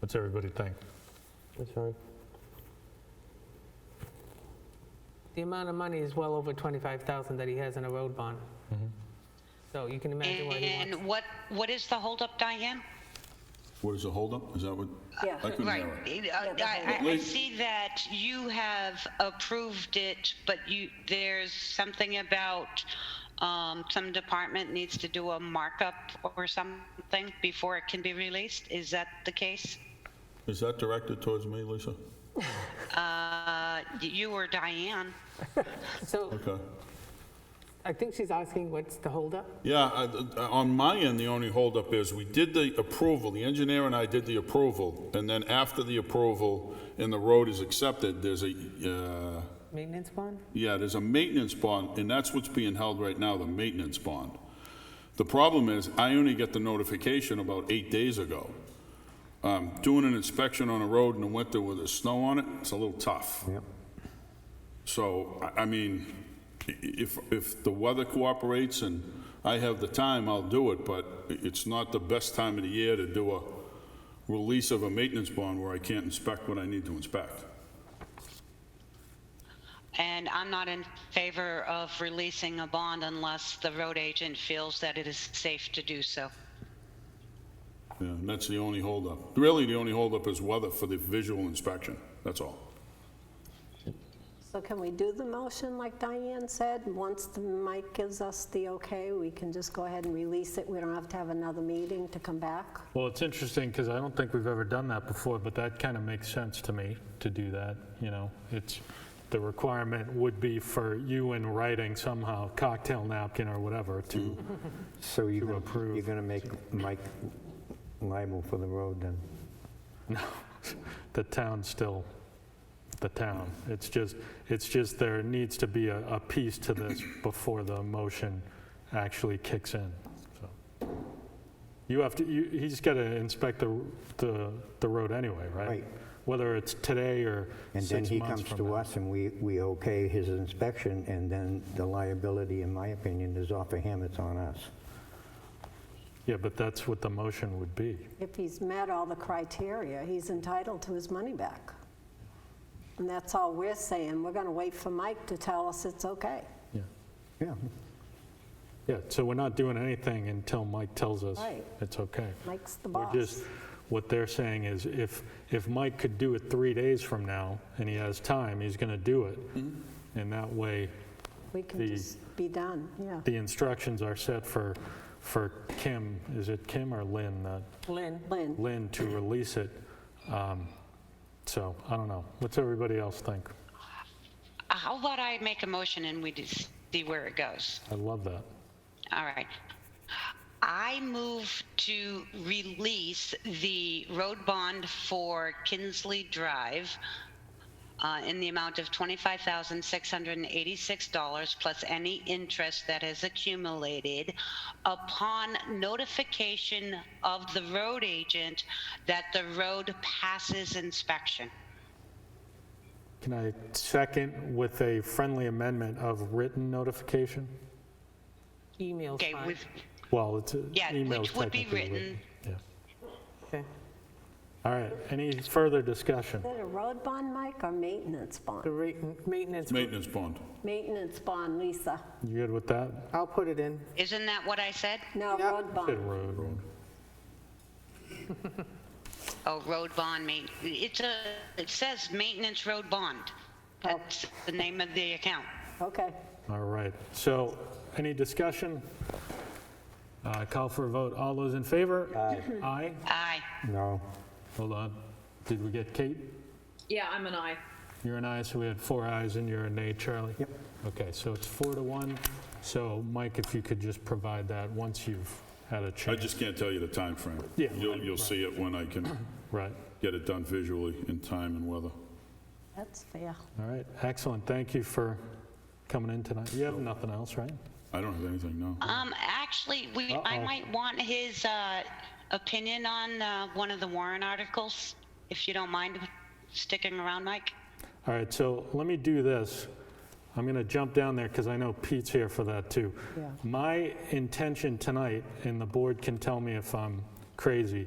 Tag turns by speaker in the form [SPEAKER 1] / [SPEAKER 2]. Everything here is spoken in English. [SPEAKER 1] What's everybody think?
[SPEAKER 2] That's fine.
[SPEAKER 3] The amount of money is well over 25,000 that he has in a road bond. So you can imagine what he wants.
[SPEAKER 4] And what, what is the holdup, Diane?
[SPEAKER 5] What is the holdup? Is that what?
[SPEAKER 6] Yeah.
[SPEAKER 5] I couldn't
[SPEAKER 4] Right,
[SPEAKER 5] hear it.
[SPEAKER 4] I- I, I
[SPEAKER 5] holdup.
[SPEAKER 4] see that you have approved it, but you, there's something about, um, some department needs to do a markup or something before it can be released, is that the case?
[SPEAKER 5] Is that directed towards me, Lisa?
[SPEAKER 4] Uh, you or Diane?
[SPEAKER 3] So
[SPEAKER 5] Okay.
[SPEAKER 3] I think she's asking what's the holdup?
[SPEAKER 5] Yeah, I- I- on my end, the only holdup is, we did the approval, the engineer and I did the approval, and then after the approval and the road is accepted, there's a, uh,
[SPEAKER 3] Maintenance bond?
[SPEAKER 5] yeah, there's a maintenance bond, and that's what's being held right now, the maintenance bond. The problem is, I only get the notification about eight days ago. Um, Doing an inspection on a road in the winter with the snow on it, it's a little tough. Yep. So, I- I mean, i- if, if the weather cooperates and I have the time, I'll do it, but i- it's not the best time of the year to do a release of a maintenance bond where I can't inspect what I need to inspect.
[SPEAKER 4] And I'm not in favor of releasing a bond unless the road agent feels that it is safe to do so.
[SPEAKER 5] Yeah, and that's the only holdup. Really, the only holdup is weather for the visual inspection, that's all.
[SPEAKER 6] So can we do the motion like Diane said? Once the Mike gives us the okay, we can just go ahead and release it. We don't have to have another meeting to come back.
[SPEAKER 1] Well, it's interesting because I don't think we've ever done that before, but that kind of makes sense to me to do that, you know? It's, the requirement would be for you in writing somehow, cocktail napkin or whatever, to,
[SPEAKER 7] So you're gonna-
[SPEAKER 1] approve.
[SPEAKER 7] You're going to make Mike liable for the road then?
[SPEAKER 1] no, the town's still the town. It's just, it's just there needs to be a, a piece to this before the motion actually kicks in, so. You have to, you, he's got to inspect the, the, the road anyway, right?
[SPEAKER 7] Right.
[SPEAKER 1] Whether it's today or
[SPEAKER 7] And
[SPEAKER 1] six
[SPEAKER 7] then he
[SPEAKER 1] months
[SPEAKER 7] comes
[SPEAKER 1] from
[SPEAKER 7] to
[SPEAKER 1] now.
[SPEAKER 7] us and we, we okay his inspection and then the liability, in my opinion, is off of him, it's on us.
[SPEAKER 1] Yeah, but that's what the motion would be.
[SPEAKER 6] If he's met all the criteria, he's entitled to his money back. And that's all we're saying. We're going to wait for Mike to tell us it's okay.
[SPEAKER 1] Yeah.
[SPEAKER 7] Yeah,
[SPEAKER 1] Yeah, so we're not doing anything until Mike tells us
[SPEAKER 6] Right.
[SPEAKER 1] it's okay.
[SPEAKER 6] Mike's the
[SPEAKER 1] We're
[SPEAKER 6] boss.
[SPEAKER 1] just, what they're saying is if, if Mike could do it three days from now and he has time, he's going to do it.
[SPEAKER 6] Mm-hmm.
[SPEAKER 1] And that way,
[SPEAKER 6] We can
[SPEAKER 1] the-
[SPEAKER 6] just be done, yeah.
[SPEAKER 1] the instructions are set for, for Kim, is it Kim or Lynn? that-
[SPEAKER 3] Lynn?
[SPEAKER 6] Lynn,
[SPEAKER 1] Lynn to release it. Um, So, I don't know. What's everybody else think?
[SPEAKER 4] How about I make a motion and we just see where it goes?
[SPEAKER 1] I love that.
[SPEAKER 4] All right. I move to release the road bond for Kinsley Drive uh, in the amount of $25,686 plus any interest that has accumulated upon notification of the road agent that the road passes inspection.
[SPEAKER 1] Can I second with a friendly amendment of written notification?
[SPEAKER 3] Email's
[SPEAKER 4] Okay,
[SPEAKER 3] fine.
[SPEAKER 4] with,
[SPEAKER 1] Well, it's uh,
[SPEAKER 4] Yeah,
[SPEAKER 1] email
[SPEAKER 4] which would be
[SPEAKER 1] technically
[SPEAKER 4] written.
[SPEAKER 1] Yeah.
[SPEAKER 3] Okay.
[SPEAKER 1] All right, any further discussion?
[SPEAKER 6] is it a road bond, Mike, or maintenance
[SPEAKER 3] The
[SPEAKER 6] bond?
[SPEAKER 3] rate- maintenance,
[SPEAKER 5] Maintenance bond.
[SPEAKER 6] Maintenance bond, Lisa.
[SPEAKER 1] You good with that?
[SPEAKER 3] I'll put it in.
[SPEAKER 4] isn't that what I said?
[SPEAKER 6] No, road
[SPEAKER 1] Good
[SPEAKER 6] bond.
[SPEAKER 1] road.
[SPEAKER 4] Oh, road bond main, it's a, it says maintenance road bond. That's the name of the account.
[SPEAKER 6] Okay.
[SPEAKER 1] All right, so any discussion? Uh, Call for a vote. All those in favor? Aye. Aye?
[SPEAKER 4] Aye.
[SPEAKER 7] no,
[SPEAKER 1] Hold on. Did we get Kate?
[SPEAKER 8] Yeah, I'm an I.
[SPEAKER 1] You're an aye, so we had four ayes and you're a nay, Charlie?
[SPEAKER 7] Yep.
[SPEAKER 1] Okay, so it's four to one. So Mike, if you could just provide that once you've had a
[SPEAKER 5] I
[SPEAKER 1] chance.
[SPEAKER 5] just can't tell you the time frame.
[SPEAKER 1] Yeah.
[SPEAKER 5] You'll, you'll see it when I can
[SPEAKER 1] Right.
[SPEAKER 5] get it done visually in time and weather.
[SPEAKER 6] That's fair.
[SPEAKER 1] All right, excellent. Thank you for coming in tonight. You have nothing else, right?
[SPEAKER 5] I don't have anything, no.
[SPEAKER 4] Um, actually, we, I
[SPEAKER 1] Uh-oh.
[SPEAKER 4] might want his, uh, opinion on, uh, one of the Warren articles, if you don't mind sticking around, Mike.
[SPEAKER 1] All right, so let me do this. I'm going to jump down there because I know Pete's here for that too. My intention tonight, and the board can tell me if I'm crazy,